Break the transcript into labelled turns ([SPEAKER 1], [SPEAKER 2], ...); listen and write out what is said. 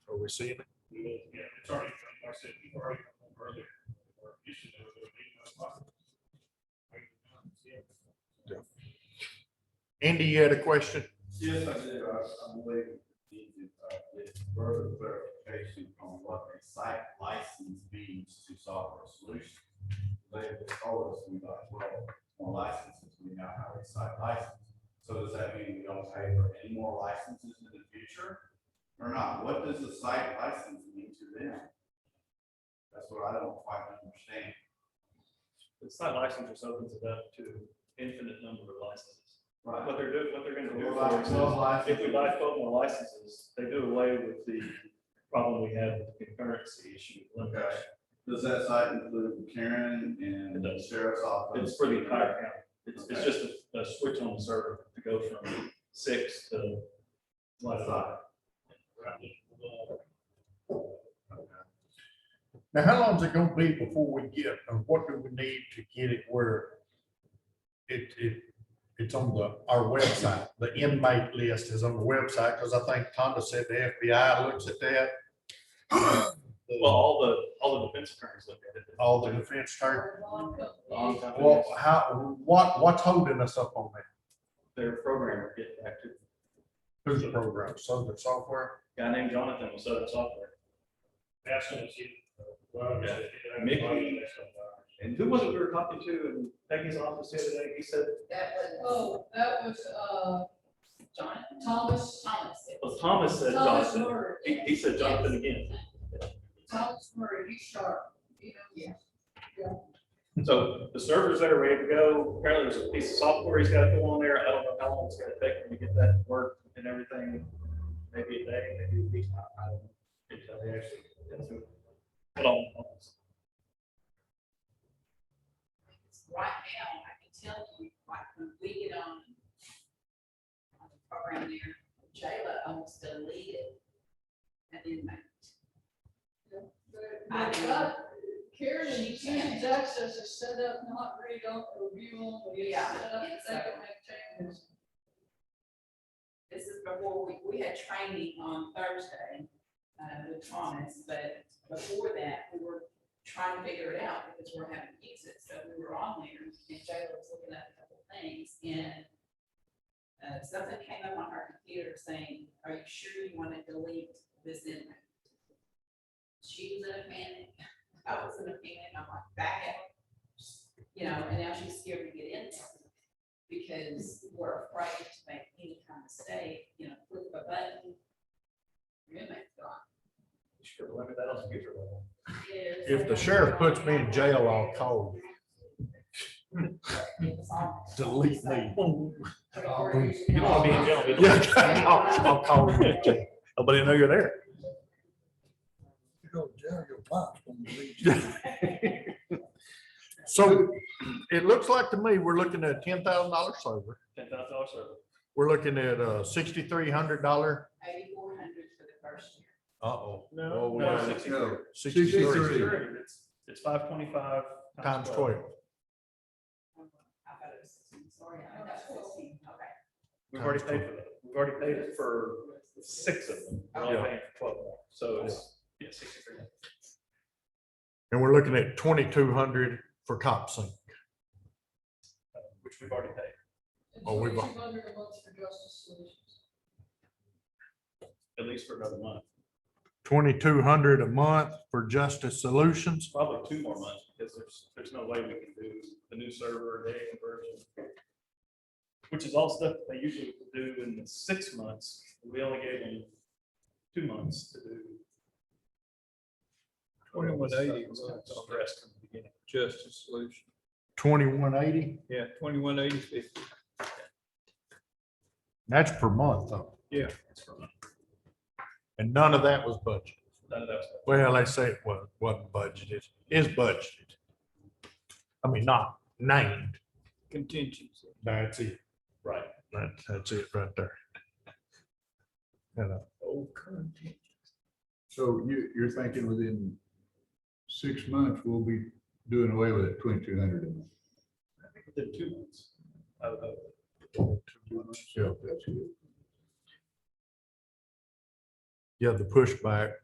[SPEAKER 1] we seeing it?
[SPEAKER 2] Yeah, it's already, like I said, people already come home earlier. or usually they were there at eight, nine o'clock. Right, um, yeah.
[SPEAKER 1] Andy, you had a question?
[SPEAKER 3] Yes, I did. I, I believe we need to uh, get further clarification on what a site license means to software solutions. They told us we like, well, more licenses, we now have a site license. So does that mean we don't pay for any more licenses in the future? Or not? What does a site license mean to them? That's what I don't quite understand.
[SPEAKER 4] The site license just opens it up to infinite number of licenses.
[SPEAKER 3] Right.
[SPEAKER 4] What they're doing, what they're gonna do
[SPEAKER 3] We're
[SPEAKER 4] for
[SPEAKER 3] like
[SPEAKER 4] us
[SPEAKER 3] twelve
[SPEAKER 4] is,
[SPEAKER 3] licenses.
[SPEAKER 4] if we buy twelve more licenses, they do away with the problem we had with the concurrency issue.
[SPEAKER 3] Okay. Does that site include Karen and
[SPEAKER 4] It
[SPEAKER 3] the
[SPEAKER 4] does.
[SPEAKER 3] sheriff's office?
[SPEAKER 4] It's for the entire county. It's, it's
[SPEAKER 3] Okay.
[SPEAKER 4] just a, a switch on the server to go from six to one.
[SPEAKER 3] Right.
[SPEAKER 1] Now, how long is it gonna be before we get, or what do we need to get it where it, it, it's on the, our website? The inmate list is on the website, because I think Tonda said the FBI looks at that.
[SPEAKER 4] Well, all the, all the defense attorneys look at it.
[SPEAKER 1] All the defense attorney,
[SPEAKER 4] Long
[SPEAKER 1] well,
[SPEAKER 4] time.
[SPEAKER 1] how, what, what's holding us up on that?
[SPEAKER 4] Their programmer get back to,
[SPEAKER 1] Who's the program, Southern Software?
[SPEAKER 4] a guy named Jonathan with Southern Software.
[SPEAKER 2] That's what it's, uh, well,
[SPEAKER 4] Yeah.
[SPEAKER 2] it's- it's-
[SPEAKER 4] Mickey.
[SPEAKER 2] that's what, uh,
[SPEAKER 4] And who was it we were talking to in Peggy's office the other day? He said,
[SPEAKER 5] That was, oh, that was, uh, John, Thomas, Thomas.
[SPEAKER 4] well, Thomas said
[SPEAKER 5] Thomas
[SPEAKER 4] Jonathan.
[SPEAKER 5] Murray.
[SPEAKER 4] He, he said Jonathan again.
[SPEAKER 5] Thomas Murray, he's sharp, you know? Yeah.
[SPEAKER 4] So the server's there, ready to go. Apparently there's a piece of software he's got to go on there. I don't know how long it's gonna take him to get that to work and everything. Maybe a day, maybe a week. I I don't know. Until they actually get to it. But I'll- I'll-
[SPEAKER 5] Right now, I can tell you, like, when we get on on the program there, Jayla almost deleted an inmate.
[SPEAKER 6] But that- Karen, you can't access is set up, not read on, review only. It's
[SPEAKER 5] Yeah.
[SPEAKER 6] set up, They can make changes.
[SPEAKER 5] This is before we, we had training on Thursday, uh, with Thomas, but before that, we were trying to figure it out because we're having to use it. So we were on there and Jayla was looking at a couple things and uh, something came up on our computer saying, are you sure you want to delete this inmate? She was in a panic. I was in a panic. I'm like, back out. You know, and now she's scared to get in there because we're afraid to make any kind of mistake, you know, click a button. Roommate's gone.
[SPEAKER 4] You should limit that on the future level.
[SPEAKER 1] If the sheriff puts me in jail, I'll call you.
[SPEAKER 5] It's all-
[SPEAKER 1] Delete me.
[SPEAKER 5] You
[SPEAKER 4] don't wanna be in jail, do you?
[SPEAKER 1] Yeah, I'll, I'll call you. Nobody will know you're there.
[SPEAKER 7] You go to jail, your pops gonna beat you.
[SPEAKER 1] So it looks like to me, we're looking at ten thousand dollars sober.
[SPEAKER 4] Ten thousand dollars server.
[SPEAKER 1] We're looking at a sixty-three hundred dollar.
[SPEAKER 5] Eighty-four hundred for the first year.
[SPEAKER 1] Uh-oh.
[SPEAKER 4] No,
[SPEAKER 1] we
[SPEAKER 4] no,
[SPEAKER 1] gotta
[SPEAKER 4] sixty-three.
[SPEAKER 1] Sixty-three
[SPEAKER 4] Sixty-three. It's, it's five twenty-five.
[SPEAKER 1] times twelve.
[SPEAKER 5] I thought it was sixteen, sorry, I got sixteen, okay.
[SPEAKER 4] We've already
[SPEAKER 1] Times
[SPEAKER 4] paid for that. We've already paid it for six of them. We're only paying for twelve more. So it's, yeah, sixty-three. uh,
[SPEAKER 1] And we're looking at twenty-two hundred for cop sync.
[SPEAKER 4] uh, Which we've already paid.
[SPEAKER 6] And
[SPEAKER 1] Oh, we've-
[SPEAKER 6] 2,200 a month for justice solutions.
[SPEAKER 4] at least for another month,
[SPEAKER 1] Twenty-two hundred a month for justice solutions.
[SPEAKER 4] probably two more months, because there's, there's no way we can do the new server, data conversion. Which is all stuff they usually do in the six months, we only gave them two months to do.
[SPEAKER 8] Twenty-one eighty
[SPEAKER 4] Stuff
[SPEAKER 8] was
[SPEAKER 4] that's addressed from the beginning.
[SPEAKER 8] justice solution.
[SPEAKER 1] Twenty-one eighty,
[SPEAKER 8] Yeah, twenty-one eighty fifty.
[SPEAKER 1] that's per month though.
[SPEAKER 4] That's from-
[SPEAKER 1] And none of that was budgeted.
[SPEAKER 4] None of that's,
[SPEAKER 1] Well, they say it was, wasn't budgeted, is budgeted. I mean, not named.
[SPEAKER 8] contingency.
[SPEAKER 1] That's it.
[SPEAKER 4] right,
[SPEAKER 1] That, that's it right there. And, uh,
[SPEAKER 8] Oh, contingency.
[SPEAKER 7] So you, you're thinking within six months, we'll be doing away with it, twenty-two hundred a month.
[SPEAKER 4] I think within two months. I would hope.
[SPEAKER 1] uh,
[SPEAKER 7] So that's good.
[SPEAKER 1] yeah, the pushback